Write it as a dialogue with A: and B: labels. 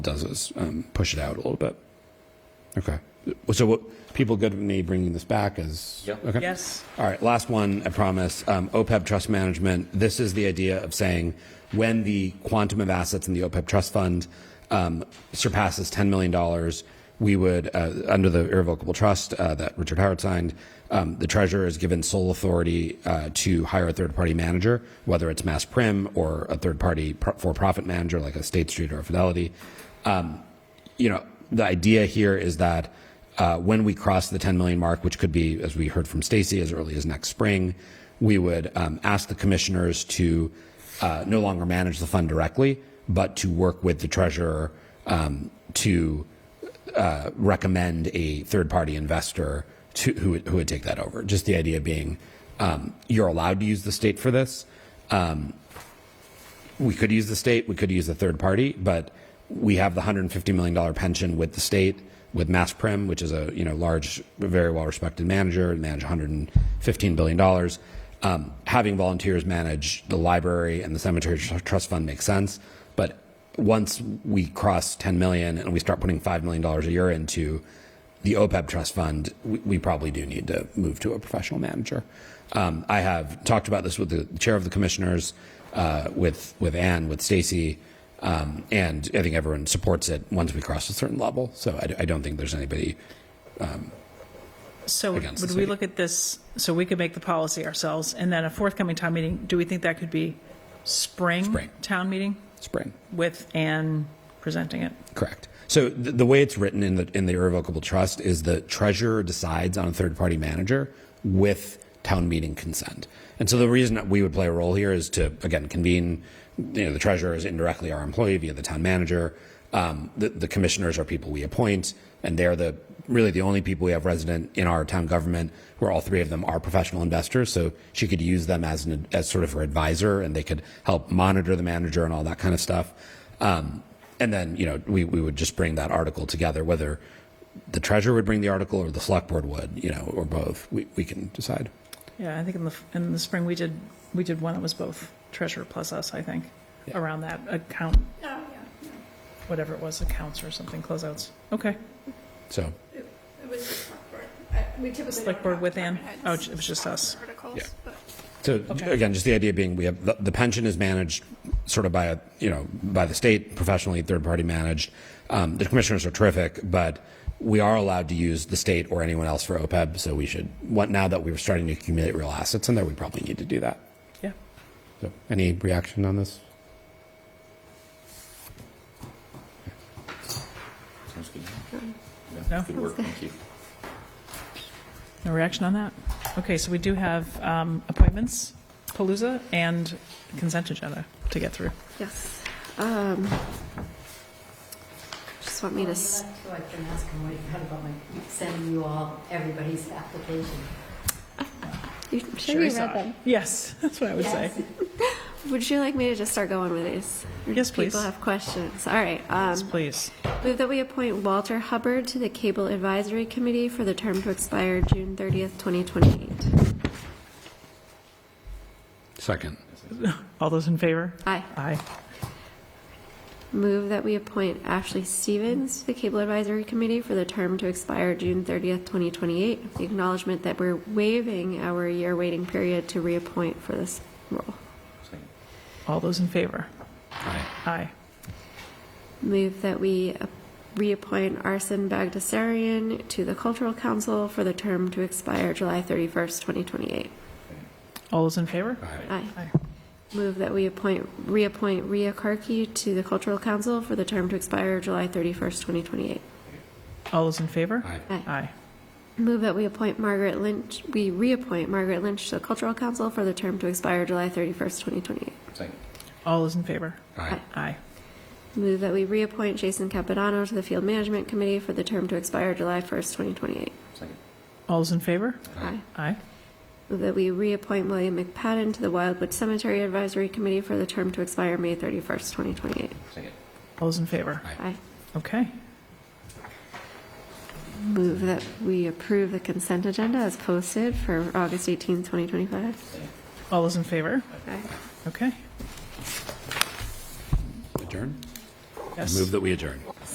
A: does is um, push it out a little bit. Okay. So what, people good with me bringing this back is?
B: Yep.
A: Okay.
C: Yes.
A: All right, last one, I promise. Um, OPEB trust management, this is the idea of saying when the quantum of assets in the OPEB trust fund um, surpasses $10 million, we would, uh, under the irrevocable trust uh, that Richard Howard signed, um, the treasurer is given sole authority uh, to hire a third-party manager, whether it's Mass Prim or a third-party pro- for-profit manager like a State Street or a Fidelity. Um, you know, the idea here is that uh, when we cross the 10 million mark, which could be, as we heard from Stacy, as early as next spring, we would um, ask the commissioners to uh, no longer manage the fund directly, but to work with the treasurer um, to uh, recommend a third-party investor to, who, would- who would take that over. Just the idea being, um, you're allowed to use the state for this we could use the state, we could use a third party, but we have the $150 million pension with the state, with Mass Prim, which is a you know large, very well respected manager, manage $115 billion. Um, having volunteers manage the library and the cemetery tr- trust fund makes sense, but once we cross 10 million and we start putting $5 million a year into the OPEB trust fund, we, we probably do need to move to a professional manager. Um, I have talked about this with the chair of the commissioners, uh, with with Anne, with Stacy, um, and I think everyone supports it once we cross a certain level. So I, d- I don't think there's anybody.
C: So
A: Against the
C: would we
A: city.
C: look at this, so we could make the policy ourselves, and then a forthcoming town meeting, do we think that could be spring?
A: Spring.
C: Town meeting
A: Spring.
C: with Anne presenting it?
A: Correct. So the, the way it's written in the in the irrevocable trust is the treasurer decides on a third party manager with town meeting consent. And so the reason that we would play a role here is to again convene. You know, the treasurer is indirectly our employee via the town manager. Um, the, the commissioners are people we appoint, and they're the really the only people we have resident in our town government. Where all three of them are professional investors, so she could use them as an as sort of her advisor, and they could help monitor the manager and all that kind of stuff. Um, and then, you know, we, we would just bring that article together, whether the treasurer would bring the article or the select board would, you know, or both. We, we can decide.
C: Yeah, I think in the, in the spring, we did, we did one that was both treasurer plus us, I think, around that account.
D: Oh,
C: Whatever it was, accounts or something, closeouts. Okay.
A: So,
D: It was the select board. I- We typically.
C: Select
D: don't
C: board
D: have
C: with Ann?
D: department
C: Oh,
D: heads
C: it was just us.
D: Articles,
A: Yeah.
D: but
A: so
C: Okay.
A: again, just the idea being we have the, the pension is managed sort of by a, you know, by the state professionally, third party managed. Um, the commissioners are terrific, but we are allowed to use the state or anyone else for OPEB. So we should, what, now that we're starting to accumulate real assets in there, we probably need to do that.
C: Yeah.
A: So any reaction on this?
B: Sounds good.
C: No?
B: Good work, thank you.
C: No reaction on that? Okay, so we do have um, appointments, Palooza, and consent agenda to get through.
E: Yes. Um, Just want me to, s-
F: So I can ask him what he thought about my sending you all everybody's application.
E: you-
C: Sure
E: should we
C: he saw
E: read
C: it.
E: them?
C: Yes, that's what I would say.
E: Would you like me to just start going with these?
C: Yes, please.
E: People have questions. All right. um,
C: Yes, please.
E: Move that we appoint Walter Hubbard to the Cable Advisory Committee for the term to expire June 30th, 2028.
A: Second.
C: All those in favor?
E: Aye.
C: Aye.
E: Move that we appoint Ashley Stevens to the Cable Advisory Committee for the term to expire June 30th, 2028. with The acknowledgement that we're waiving our year waiting period to reappoint for this role.
B: Second.
C: All those in favor?
A: Aye.
C: Aye.
E: Move that we uh, reappoint Arsen Bagdasarian to the Cultural Council for the term to expire July 31st, 2028.
C: All those in favor?
E: Aye.
C: Aye.
E: Move that we appoint, reappoint Ria Karki to the Cultural Council for the term to expire July 31st, 2028.
C: All those in favor?
A: Aye.
E: Aye.
C: Aye.
E: Move that we appoint Margaret Lynch, we reappoint Margaret Lynch to the Cultural Council for the term to expire July 31st, 2028.
B: Second.
C: All those in favor?
A: Aye.
C: Aye.
E: Move that we reappoint Jason Capodanno to the Field Management Committee for the term to expire July 1st, 2028.
B: Second.
C: All those in favor?
E: Aye.
C: Aye.
E: Move that we reappoint William McPadden to the Wildwood Cemetery Advisory Committee for the term to expire May 31st, 2028.
B: Second.
C: All those in favor?
E: I
C: Okay.
E: move that we approve the consent agenda as posted for August 18th, 2025.
C: All those in favor?
E: Aye.
C: Okay.
A: Adjourn?
C: Yes.
A: Move that we adjourn.